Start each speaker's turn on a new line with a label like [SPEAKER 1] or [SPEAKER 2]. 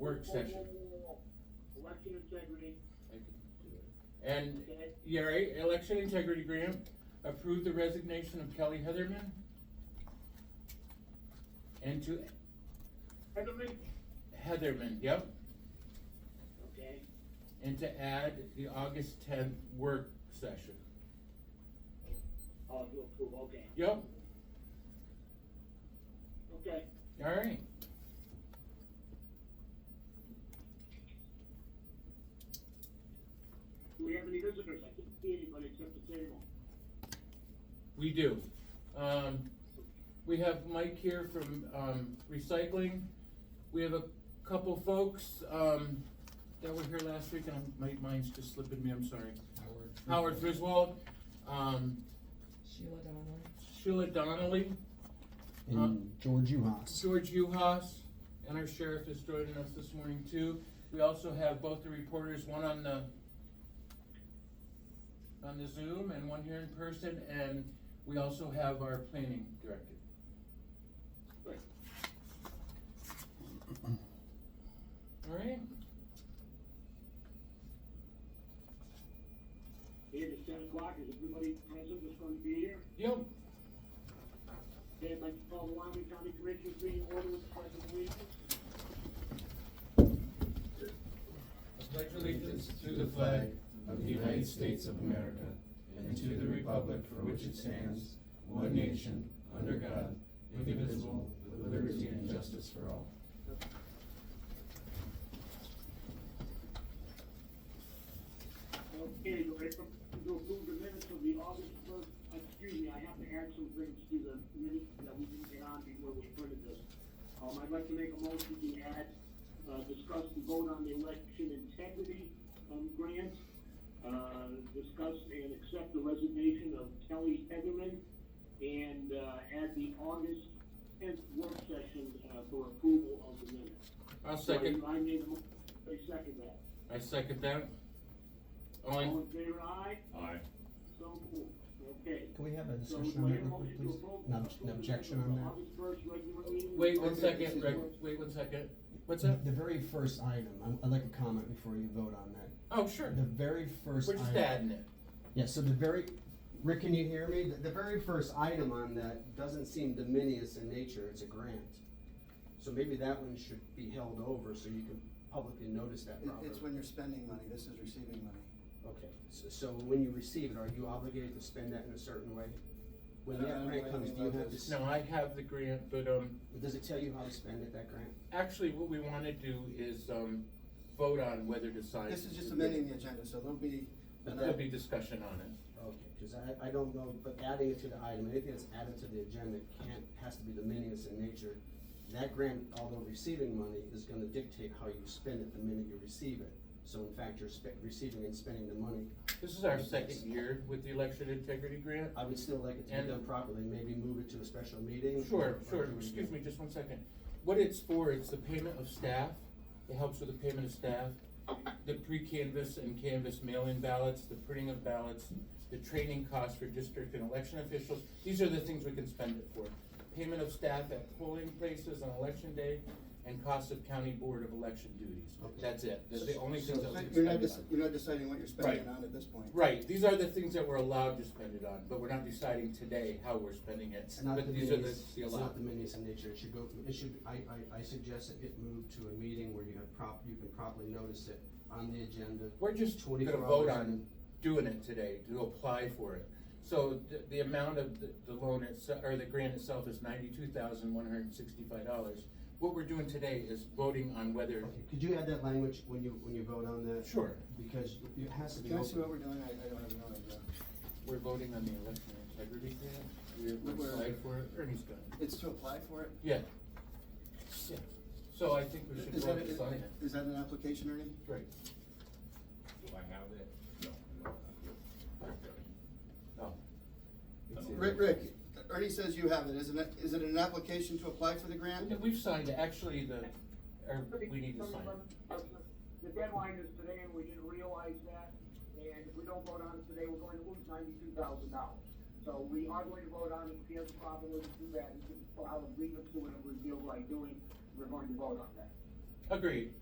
[SPEAKER 1] work session.
[SPEAKER 2] Election integrity,
[SPEAKER 1] And,
[SPEAKER 2] okay?
[SPEAKER 1] yeah, right, election integrity grant, approve the resignation of Kelly Heatherman. And to
[SPEAKER 2] Heatherman,
[SPEAKER 1] Heatherman, yep,
[SPEAKER 2] okay?
[SPEAKER 1] and to add the August tenth work session.
[SPEAKER 2] Oh, you approve, okay,
[SPEAKER 1] Yep,
[SPEAKER 2] okay.
[SPEAKER 1] all right.
[SPEAKER 2] Do we have any visitors? I can't see anybody except the table.
[SPEAKER 1] We do. Um, we have Mike here from, um, recycling. We have a couple folks, um, that were here last week, and I'm- my mind's just slipping me, I'm sorry.
[SPEAKER 3] Howard.
[SPEAKER 1] Howard Friswold, um,
[SPEAKER 4] Sheila Donnelly.
[SPEAKER 1] Sheila Donnelly,
[SPEAKER 3] And George Uhas.
[SPEAKER 1] George Uhas, and our sheriff is joining us this morning too. We also have both the reporters, one on the, on the Zoom and one here in person, and we also have our planning director.
[SPEAKER 2] Right.
[SPEAKER 1] All right,
[SPEAKER 2] It is ten o'clock, is everybody present that's going to be here?
[SPEAKER 1] yep,
[SPEAKER 2] Okay, I'd like to call the Wyoming County Commissioners meeting order with the pledge of allegiance.
[SPEAKER 1] I pledge allegiance to the flag
[SPEAKER 5] of the United States of America and to the republic for which it stands, one nation, under God, indivisible, with liberty and justice for all.
[SPEAKER 2] Okay, do I to approve the minutes of the August first, excuse me, I have to add some things to the minutes that we didn't get on before we printed this. Um, I'd like to make a motion to add, uh, discuss and vote on the election integrity, um, grant. Uh, discuss and accept the resignation of Kelly Heatherman and, uh, add the August tenth work session, uh, for approval of the minutes.
[SPEAKER 1] I'll second,
[SPEAKER 2] So I I made a mo- I second that.
[SPEAKER 1] I second that. All
[SPEAKER 2] All
[SPEAKER 1] in,
[SPEAKER 2] in favor, aye?
[SPEAKER 5] Aye.
[SPEAKER 2] So moved. Okay.
[SPEAKER 3] Can we have a
[SPEAKER 2] So
[SPEAKER 3] discussion on that real quick, please? No, no objection on that?
[SPEAKER 1] wait one second, Rick, wait one second, what's that?
[SPEAKER 3] The very first item, I- I'd like a comment before you vote on that.
[SPEAKER 1] Oh, sure,
[SPEAKER 3] The very first
[SPEAKER 1] we're
[SPEAKER 3] item.
[SPEAKER 1] just adding it.
[SPEAKER 3] Yeah, so the very, Rick, can you hear me? The, the very first item on that doesn't seem dominious in nature, it's a grant. So maybe that one should be held over so you can publicly notice that
[SPEAKER 6] It-
[SPEAKER 3] properly.
[SPEAKER 6] It's when you're spending money, this is receiving money.
[SPEAKER 3] Okay, so, so when you receive it, are you obligated to spend that in a certain way? When
[SPEAKER 6] I don't
[SPEAKER 3] that
[SPEAKER 6] know
[SPEAKER 3] grant comes,
[SPEAKER 6] anything
[SPEAKER 3] do you
[SPEAKER 6] about
[SPEAKER 3] have to,
[SPEAKER 6] this.
[SPEAKER 3] s-
[SPEAKER 1] No, I have the grant, but, um,
[SPEAKER 3] does it tell you how to spend it, that grant?
[SPEAKER 1] Actually, what we want to do is um, vote on whether to sign.
[SPEAKER 6] This is just amending the agenda, so there'll be, uh,
[SPEAKER 1] There'll be discussion on it.
[SPEAKER 3] Okay, cause I, I don't know, but adding it to the item, anything that's added to the agenda can't, has to be dominious in nature. That grant, although receiving money, is gonna dictate how you spend it the minute you receive it. So in fact, you're spe- receiving and spending the money.
[SPEAKER 1] This is our second year with the election integrity grant.
[SPEAKER 3] I would still like it to
[SPEAKER 1] And-
[SPEAKER 3] be done properly, maybe move it to a special meeting.
[SPEAKER 1] Sure,
[SPEAKER 3] or- or
[SPEAKER 1] sure,
[SPEAKER 3] do it
[SPEAKER 1] excuse
[SPEAKER 3] again.
[SPEAKER 1] me, just one second. What it's for, it's the payment of staff. It helps with the payment of staff, the pre-canvas and canvas mail-in ballots, the printing of ballots, the training costs for district and election officials. These are the things we can spend it for. Payment of staff at polling places on election day and cost of county board of election duties. That's it. That's the only things that we can
[SPEAKER 6] you're
[SPEAKER 1] spend
[SPEAKER 6] not,
[SPEAKER 1] it
[SPEAKER 6] dec-
[SPEAKER 1] on.
[SPEAKER 6] you're not deciding what you're spending
[SPEAKER 1] Right.
[SPEAKER 6] on at this point.
[SPEAKER 1] Right, these are the things that we're allowed to spend it on, but we're not deciding today how we're spending it,
[SPEAKER 3] It's not
[SPEAKER 1] but these are the,
[SPEAKER 3] dominious-
[SPEAKER 1] the
[SPEAKER 3] It's not
[SPEAKER 1] allowed.
[SPEAKER 3] dominious in nature, it should go, it should, I, I, I suggest it get moved to a meeting where you have prop, you can properly notice it on the agenda.
[SPEAKER 1] We're just gonna
[SPEAKER 3] 24
[SPEAKER 1] vote
[SPEAKER 3] hours
[SPEAKER 1] on
[SPEAKER 3] in.
[SPEAKER 1] doing it today, to apply for it. So the, the amount of the, the loan itself, or the grant itself is ninety-two thousand one hundred and sixty-five dollars. What we're doing today is voting on whether,
[SPEAKER 3] Okay, Could you add that language when you, when you vote on that?
[SPEAKER 1] sure,
[SPEAKER 3] Because it has to be
[SPEAKER 6] Can I see what
[SPEAKER 3] open.
[SPEAKER 6] we're doing? I, I don't have no idea.
[SPEAKER 1] we're voting on the election integrity grant, we
[SPEAKER 6] Where-
[SPEAKER 1] applied for it, Ernie's done. it.
[SPEAKER 6] It's to apply for it?
[SPEAKER 1] Yeah. Yeah, so I think we should
[SPEAKER 6] Is that,
[SPEAKER 1] vote to sign it.
[SPEAKER 6] is that an application, Ernie?
[SPEAKER 1] Right.
[SPEAKER 5] Do I have that? No.
[SPEAKER 1] No. It's in.
[SPEAKER 6] Rick, Rick, Ernie says you have it, isn't it, is it an application to apply for the grant?
[SPEAKER 1] Yeah, We've signed, it. actually, the, or we need to sign it.
[SPEAKER 2] The deadline is today and we didn't realize that, and if we don't vote on it today, we're going to lose ninety-two thousand dollars. So we are going to vote on it, if we have a problem with it, do that, if we file a grievance to it, and reveal what I'm doing, we're going to vote on that.
[SPEAKER 1] Agreed.